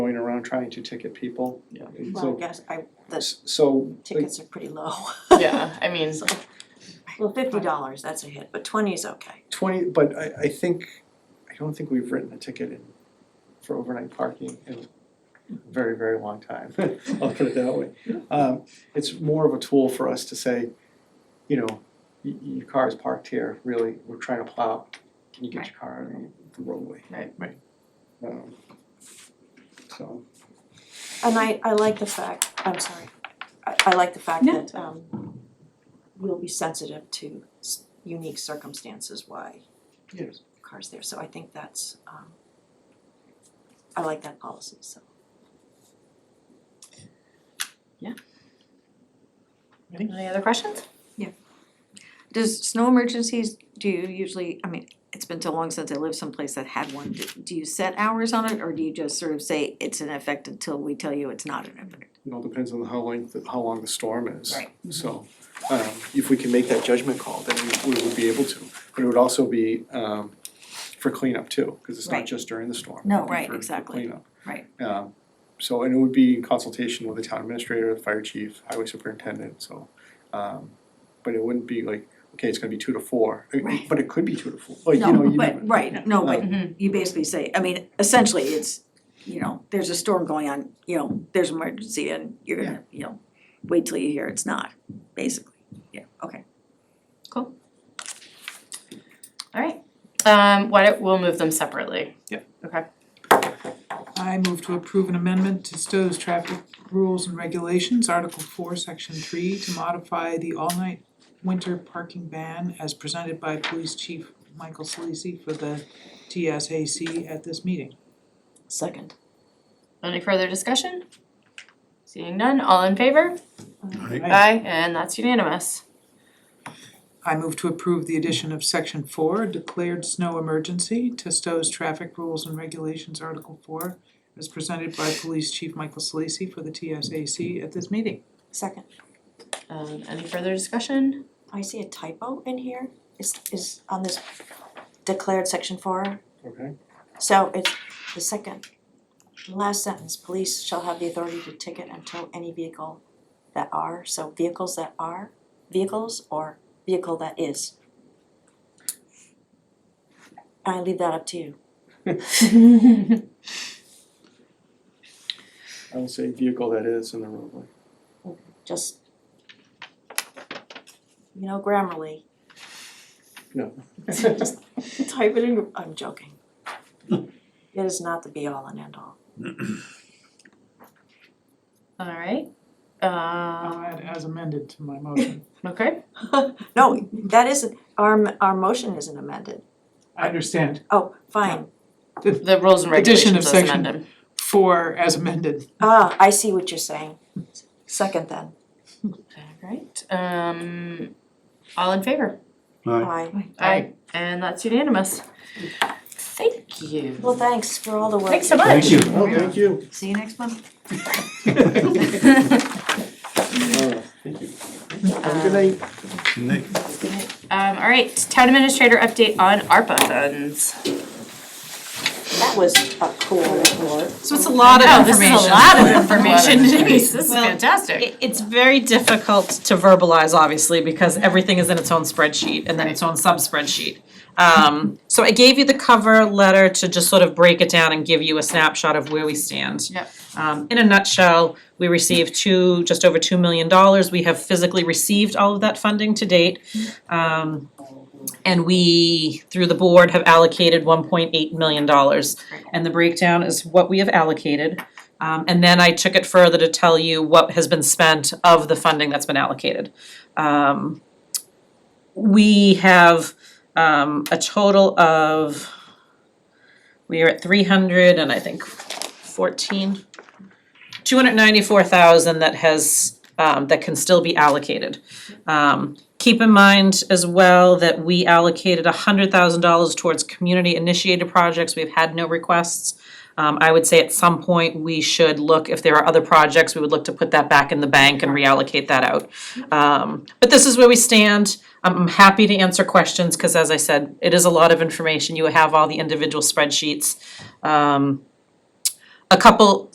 on trying to ticket people. Yeah. And Well, I So, guess I, the s- so, like, tickets are pretty low. Yeah, I mean, So, Well, fifty dollars, that's a hit, but twenty is okay. twenty, but I, I think, I don't think we've written a ticket in, for overnight parking in a very, very long time, I'll put it that way. Um, it's more of a tool for us to say, you know, y- y- your car is parked here, really, we're trying to plow, can you get your car on the roadway? Right. Right. Um, So, And I, I like the fact, I'm sorry, I, I like the fact No. that, um, we'll be sensitive to s- unique circumstances why yes. cars there, so I think that's, um, I like that policy, so. any other questions? Does snow emergencies, do you usually, I mean, it's been so long since I lived someplace that had one, do do you set hours on it, or do you just sort of say it's in effect until we tell you it's not in effect? It all depends on how long, how long the storm is. Right. So, um, if we can make that judgment call, then we, we would be able to, but it would also be, um, for cleanup too, cause it's not Right. just during the storm. No, It'd be right, for- for exactly. cleanup. Right. Um, so, and it would be in consultation with the town administrator, the fire chief, highway superintendent, so, um, but it wouldn't be like, okay, it's gonna be two to four, It- it- Right. but it could be two to four, like, you know, you No, never- but, right, no, Mhm. but you basically say, I mean, essentially, it's, you know, there's a storm going on, you know, there's an emergency, and you're gonna, you know, wait till you hear it's not, basically, yeah, okay. Alright, um, why don't, we'll move them separately. Yep. Okay, I move to approve an amendment to Stowe's traffic rules and regulations, Article four, section three, to modify the all-night winter parking ban as presented by Police Chief Michael Solisi for the TSAC at this meeting. Second. any further discussion? Seeing none, all in favor? Aye. Aye, and that's unanimous. I move to approve the addition of section four, declared snow emergency, to Stowe's traffic rules and regulations, Article four, as presented by Police Chief Michael Solisi for the TSAC at this meeting. Second, Um, any further discussion? I see a typo in here, is, is on this declared section four, Okay, So it's the second, the last sentence, police shall have the authority to ticket and tow any vehicle that are, so vehicles that are, vehicles or vehicle that is. I leave that up to you. I would say vehicle that is in the roadway. Just you know, grammarly, No. type it in, I'm joking. It is not the be all and end all. Alright, I'll um, add as amended to my motion. okay, No, that isn't, our our motion isn't amended. I understand. Oh, fine. the rules and Addition of regulations as section- amended. Four as amended. Ah, I see what you're saying. Second then. Alright, um, all in favor? Aye. Aye, and that's unanimous. Thank you. Well, thanks for all the work. Thanks so you much. Oh, thank you. See you next month. Alright, thank you. Have a good night. Nick, Um, all right, town administrator update on ARPA funds. did. That was a cool report. So it's a lot of Oh, this is information. a lot of information, Denise, this is Well, fantastic. It- It's very difficult to verbalize, obviously, because everything is in its own spreadsheet and then its own sub-spreadsheet. Um, so I gave you the cover letter to just sort of break it down and give you a snapshot of where we stand. Yep. Um, in a nutshell, we received two, just over two million dollars. We have physically received all of that funding to date. Um, and we, through the board, have allocated one point eight million dollars. And the breakdown is what we have allocated. Um, and then I took it further to tell you what has been spent of the funding that's been allocated. Um, we have, um, a total of, we are at three hundred and I think fourteen, two hundred ninety-four thousand that has, um, that can still be allocated. Um, keep in mind as well that we allocated hundred thousand dollars towards community-initiated projects. We've had no requests. Um, I would say at some point, we should look, if there are other projects, we would look to put that back in the bank and reallocate that out. Um, but this is where we stand. I'm I'm happy to answer questions, cause as I said, it is a lot of information. You have all the individual spreadsheets. Um, a couple